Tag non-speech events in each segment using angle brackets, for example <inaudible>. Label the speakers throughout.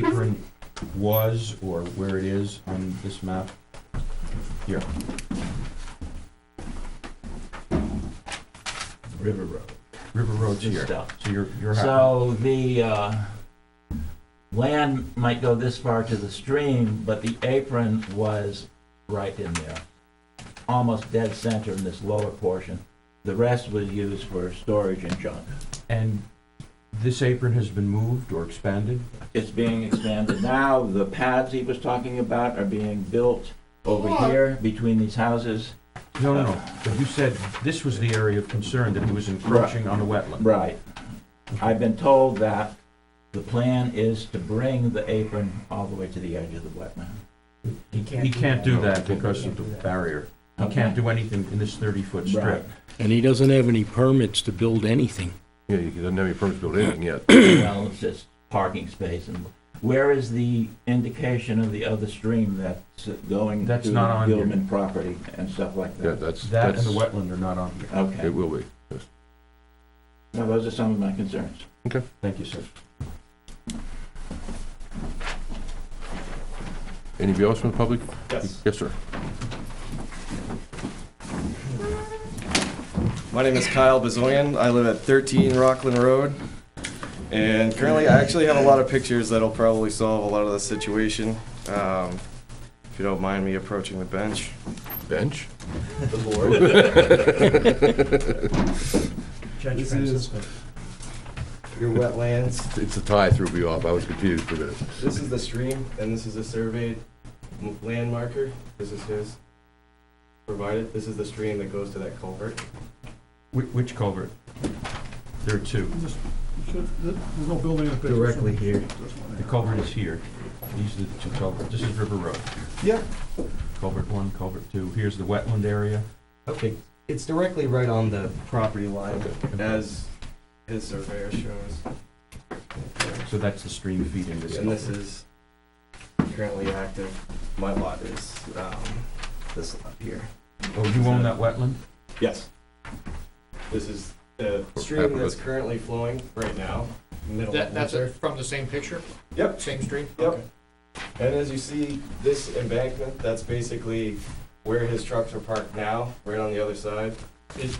Speaker 1: apron was or where it is on this map? Here,
Speaker 2: River Road.
Speaker 1: River Road's
Speaker 2: Just
Speaker 1: here.
Speaker 2: stuff.
Speaker 1: So you're, you're happy.
Speaker 2: So the, uh, land might go this far to the stream, but the apron was right in there. Almost dead center in this lower portion. The rest was used for storage and junk.
Speaker 1: And this apron has been moved or expanded?
Speaker 2: It's being expanded now. The pads he was talking about are being built over here between these houses.
Speaker 1: No, no, no, but you said this was the area of concern, that he was encroaching on the wetland.
Speaker 2: Right. I've been told that the plan is to bring the apron all the way to the edge of the wetland.
Speaker 3: He
Speaker 1: He can't do that because of the
Speaker 3: that.
Speaker 1: barrier. He can't do anything in this thirty-foot
Speaker 2: Right.
Speaker 1: strip.
Speaker 4: And he doesn't have any permits to build anything.
Speaker 5: Yeah, he doesn't have any permits to build anything yet.
Speaker 2: Well, it's just parking space and where is the indication of the other stream that's going
Speaker 1: That's
Speaker 2: to
Speaker 1: not on here.
Speaker 2: Gilman property and stuff like
Speaker 5: Yeah,
Speaker 2: that?
Speaker 5: that's,
Speaker 1: That and
Speaker 5: that's,
Speaker 1: the wetland are not on here.
Speaker 2: Okay.
Speaker 5: it will be.
Speaker 2: Now, those are some of my concerns.
Speaker 1: Thank you, sir.
Speaker 5: Anybody else from the public?
Speaker 6: Yes.
Speaker 5: Yes, sir.
Speaker 6: My name is Kyle Bezoyan. I live at 13 Rockland Road. And currently, I actually have a lot of pictures that'll probably solve a lot of the situation. Um, if you don't mind me approaching the bench.
Speaker 5: Bench?
Speaker 6: <laughs>
Speaker 3: Judge
Speaker 6: This is-
Speaker 3: Francisco.
Speaker 6: Your wetlands.
Speaker 5: It's the tie threw me off. I was confused for a minute.
Speaker 6: This is the stream, and this is a surveyed m- land marker. This is his provided. This is the stream that goes to that culvert.
Speaker 1: Wh- Which culvert? There are two.
Speaker 7: There's no building in the picture.
Speaker 2: Directly here.
Speaker 1: The culvert is here. These are the two culverts. This is River Road.
Speaker 6: Yeah.
Speaker 1: Culvert one, culvert two. Here's the wetland area.
Speaker 6: Okay. It's directly right on the property line.
Speaker 1: Mm-hmm.
Speaker 6: As his surveyor shows.
Speaker 1: So that's the stream feeding this.
Speaker 6: And this
Speaker 1: culvert.
Speaker 6: is currently active. My lot is, um, this lot here.
Speaker 1: Oh, you own that wetland?
Speaker 6: Yes. This is the
Speaker 5: half
Speaker 6: stream
Speaker 5: of
Speaker 6: that's
Speaker 5: it.
Speaker 6: currently flowing right now, middle of
Speaker 3: That, that's
Speaker 6: winter.
Speaker 3: from the same picture,
Speaker 6: Yep,
Speaker 3: same stream?
Speaker 6: Yep. and as you see, this embankment, that's basically where his trucks are parked now, right on the other side.
Speaker 3: Is,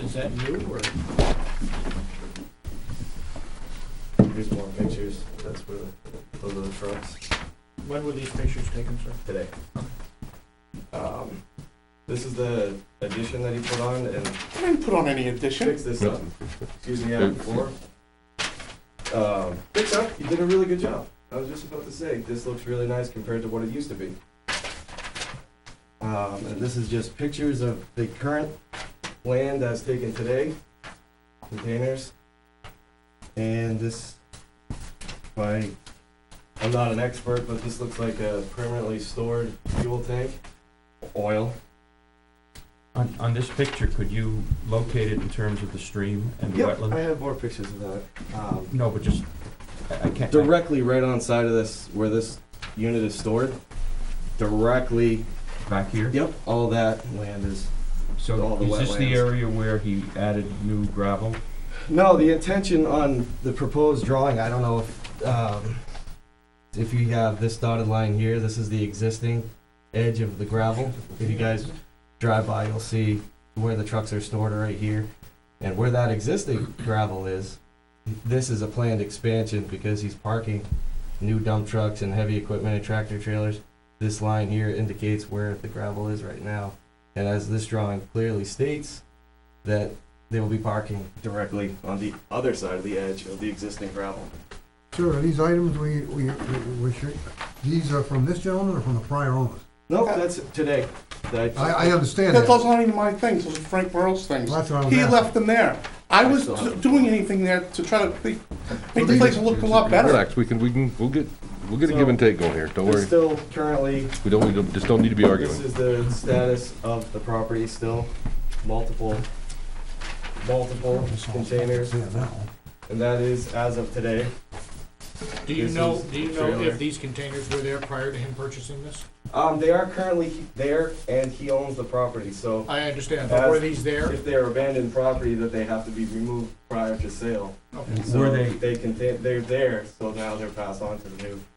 Speaker 3: is that new or?
Speaker 6: Here's more pictures, that's where, the- those are the trucks.
Speaker 3: When were these pictures taken, sir?
Speaker 6: today. Um, this is the addition that he put on and
Speaker 7: I didn't put on any addition.
Speaker 6: fix this up. Excuse me, Adam, floor. Um, fix up, you did a really good job. I was just about to say, this looks really nice compared to what it used to be. Um, and this is just pictures of the current land as taken today, containers. And this, my, I'm not an expert, but this looks like a permanently stored fuel tank, oil.
Speaker 1: On, on this picture, could you locate it in terms of the stream and the
Speaker 6: Yep, I
Speaker 1: wetland?
Speaker 6: have more pictures of that. Um,
Speaker 1: No, but just, I I can't.
Speaker 6: directly right on side of this where this unit is stored directly
Speaker 1: Back here?
Speaker 6: yep all that land is all
Speaker 1: So
Speaker 6: the
Speaker 1: is this the
Speaker 6: wetlands.
Speaker 1: area where he added new gravel?
Speaker 6: no the intention on the proposed drawing i don't know if um, if you have this dotted line here this is the existing edge of the gravel if you guys drive by you'll see where the trucks are stored right here and where that existing gravel is this is a planned expansion because he's parking new dump trucks and heavy equipment and tractor trailers this line here indicates where the gravel is right now and as this drawing clearly states that they will be parking directly on the other side of the edge of the existing gravel
Speaker 7: Sir, are these items we, we, we- we, should- these are from this gentleman or from the prior owners?
Speaker 6: no that's today That-
Speaker 7: I, I understand
Speaker 8: That
Speaker 7: that.
Speaker 8: those aren't even my things, those are Frank Burrows' things.
Speaker 7: That's what I was
Speaker 8: He
Speaker 7: asking.
Speaker 8: left them there. I
Speaker 6: I
Speaker 8: was
Speaker 6: still have them.
Speaker 8: doing anything there to try to make make the place look a lot better.
Speaker 5: Relax, we can, we can, we'll get, we'll get a give and take going here. Don't
Speaker 6: There's
Speaker 5: worry.
Speaker 6: still currently
Speaker 5: We don't, need to just don't need to be
Speaker 6: This
Speaker 5: arguing.
Speaker 6: is the status of the property still, multiple, multiple containers,
Speaker 7: Yeah, that one.
Speaker 6: and that is as of today.
Speaker 3: Do you
Speaker 6: This
Speaker 3: know,
Speaker 6: is
Speaker 3: do you know
Speaker 6: trailer.
Speaker 3: if these containers were there prior to him purchasing this?
Speaker 6: Um, they are currently there, and he owns the property, so
Speaker 3: I understand, but were these there?
Speaker 6: if they're abandoned property, that they have to be removed prior to sale.
Speaker 3: Okay.
Speaker 6: And so
Speaker 1: Were they-
Speaker 6: They can, they're there, so now they're passed on to the new